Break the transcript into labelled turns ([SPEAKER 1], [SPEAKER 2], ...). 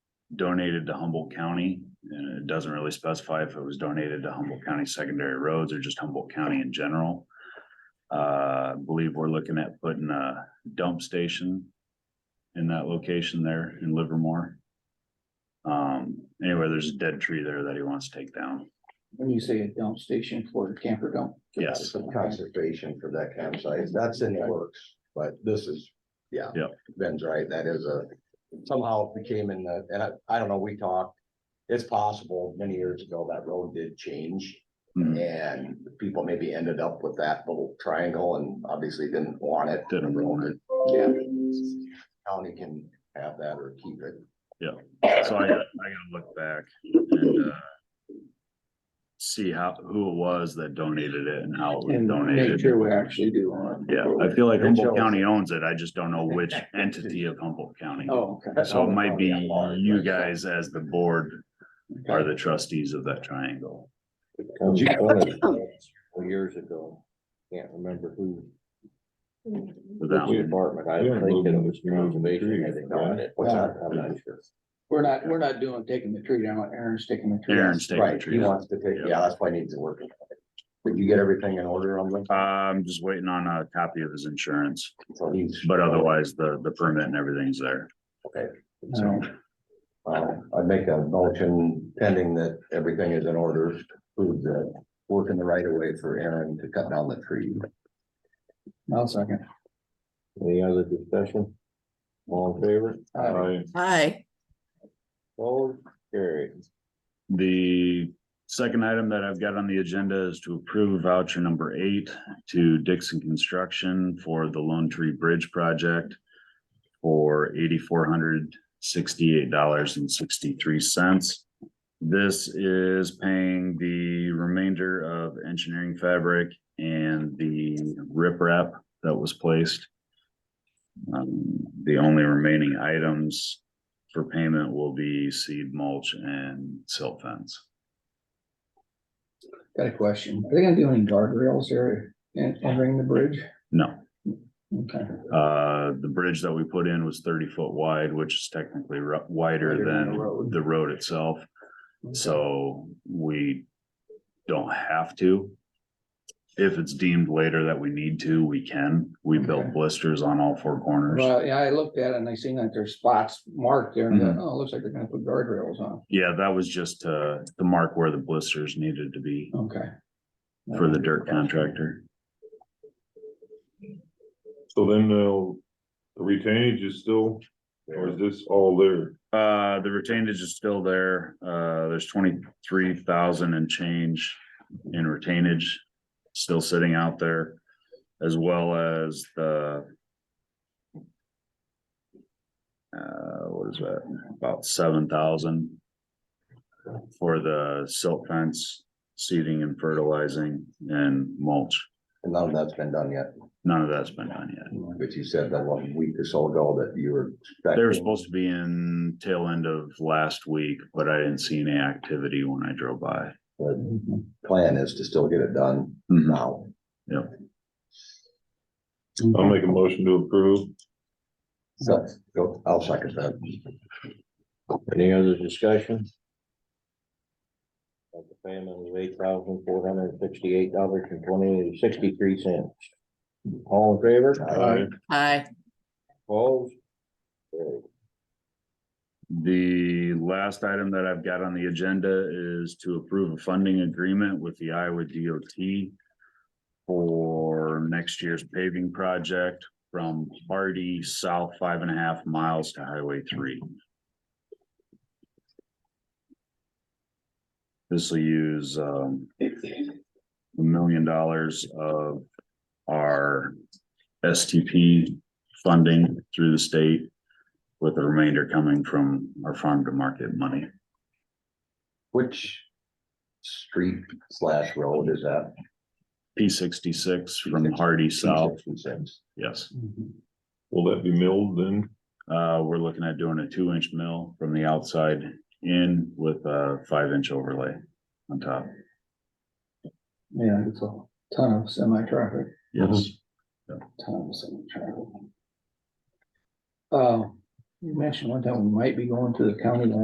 [SPEAKER 1] donated to Humboldt County. And it doesn't really specify if it was donated to Humboldt County Secondary Roads or just Humboldt County in general. Uh, I believe we're looking at putting a dump station in that location there in Livermore. Um, anyway, there's a dead tree there that he wants to take down.
[SPEAKER 2] When you say a dump station for camper dump?
[SPEAKER 1] Yes.
[SPEAKER 3] conservation for that campsite, that's in the works, but this is, yeah.
[SPEAKER 1] Yeah.
[SPEAKER 3] Ben's right, that is a, somehow it became in the, and I, I don't know, we talked, it's possible many years ago that road did change.
[SPEAKER 1] Mhm.
[SPEAKER 3] And people maybe ended up with that little triangle and obviously didn't want it.
[SPEAKER 1] Didn't want it.
[SPEAKER 3] Yeah. County can have that or keep it.
[SPEAKER 1] So I, I gotta look back and, uh. See how, who it was that donated it and how it was
[SPEAKER 2] And make
[SPEAKER 1] donated.
[SPEAKER 2] sure we actually do on it.
[SPEAKER 1] Yeah, I feel like
[SPEAKER 3] It
[SPEAKER 1] Humboldt
[SPEAKER 3] shows.
[SPEAKER 1] County owns it. I just don't know which entity of Humboldt County.
[SPEAKER 2] Oh, okay.
[SPEAKER 1] So it might be you guys as the board are the trustees of that triangle.
[SPEAKER 4] Cause you wanted it years ago, can't remember who,
[SPEAKER 1] But that
[SPEAKER 4] the
[SPEAKER 1] one,
[SPEAKER 4] department, I
[SPEAKER 5] Yeah,
[SPEAKER 4] think that it
[SPEAKER 5] moving-
[SPEAKER 4] was
[SPEAKER 5] moving
[SPEAKER 4] conservation, I
[SPEAKER 5] trees,
[SPEAKER 4] think,
[SPEAKER 5] yeah.
[SPEAKER 4] on it,
[SPEAKER 3] What's that?
[SPEAKER 4] I'm not sure.
[SPEAKER 2] We're not, we're not doing taking the tree down. Aaron's taking the tree. down.
[SPEAKER 1] Aaron's taking the
[SPEAKER 3] Right, he
[SPEAKER 1] tree. down.
[SPEAKER 3] wants to take,
[SPEAKER 1] Yeah.
[SPEAKER 3] yeah, that's why he needs to work. on it. Did you get everything in order on this?
[SPEAKER 1] I'm just waiting on a copy of his insurance,
[SPEAKER 3] So he's.
[SPEAKER 1] but otherwise the, the permit and everything's there.
[SPEAKER 2] So,
[SPEAKER 3] Uh, I'd make a motion pending that everything is in order, prove that work in the right of way for Aaron to cut down the tree.
[SPEAKER 2] I'll second.
[SPEAKER 4] Any other discussion? All in favor?
[SPEAKER 2] uh,
[SPEAKER 5] Aye.
[SPEAKER 6] Hi,
[SPEAKER 4] All carried.
[SPEAKER 1] The second item that I've got on the agenda is to approve voucher number eight to Dixon Construction for the Lone Tree Bridge Project for eighty-four hundred sixty-eight dollars and sixty-three cents. This is paying the remainder of engineering fabric and the riprap that was placed. Um, the only remaining items for payment will be seed mulch and silt fence.
[SPEAKER 2] Got a question. Are they gonna do any guardrails there and entering the bridge?
[SPEAKER 1] No,
[SPEAKER 2] Okay.
[SPEAKER 1] uh, the bridge that we put in was thirty foot wide, which is technically ru-
[SPEAKER 2] Wider
[SPEAKER 1] wider
[SPEAKER 2] than the
[SPEAKER 1] than
[SPEAKER 2] road.
[SPEAKER 1] the road itself. So we don't have to. If it's deemed later that we need to, we can. We
[SPEAKER 2] Okay.
[SPEAKER 1] built blisters on all four corners.
[SPEAKER 2] Well, yeah, I looked at it and I seen that there's spots marked there and I thought, oh, it looks like they're gonna put guardrails on.
[SPEAKER 1] Yeah, that was just to, to mark where the blisters needed to be
[SPEAKER 2] Okay.
[SPEAKER 1] for the dirt contractor.
[SPEAKER 5] So then they'll, the retainage is still, or is this all there?
[SPEAKER 1] Uh, the retainage is still there. Uh, there's twenty-three thousand and change in retainage still sitting out there, as well as the uh, what is that? About seven thousand for the silt fence, seeding and fertilizing and mulch.
[SPEAKER 3] And none of that's been done yet,
[SPEAKER 1] None of that's been done yet.
[SPEAKER 3] but you said that one week or so ago that you were. expecting-
[SPEAKER 1] They were supposed to be in tail end of last week, but I didn't see any activity when I drove by.
[SPEAKER 3] The Plan is to still get it done now.
[SPEAKER 5] I'll make a motion to approve.
[SPEAKER 3] So, go- I'll second that.
[SPEAKER 4] Any other discussion? Of the payment of eight thousand four hundred sixty-eight dollars and twenty, sixty-three cents. All in favor?
[SPEAKER 5] Aye.
[SPEAKER 6] hi.
[SPEAKER 4] Opposed? Carried.
[SPEAKER 1] The last item that I've got on the agenda is to approve a funding agreement with the Iowa DOT for next year's paving project from Hardy South five and a half miles to Highway three. This will use um a million dollars of our STP funding through the state with the remainder coming from our farm to market money.
[SPEAKER 3] Which street slash road is that?
[SPEAKER 1] P sixty-six from Hardy South,
[SPEAKER 3] 266.
[SPEAKER 1] yes.
[SPEAKER 2] Mm-hmm.
[SPEAKER 5] Will that be milled then?
[SPEAKER 1] Uh, we're looking at doing a two-inch mill from the outside in with a five-inch overlay on top.
[SPEAKER 2] Yeah, it's a ton of semi traffic.
[SPEAKER 1] Yes,
[SPEAKER 2] Thomas and Charlie. Uh, you mentioned one time we might be going to the county line.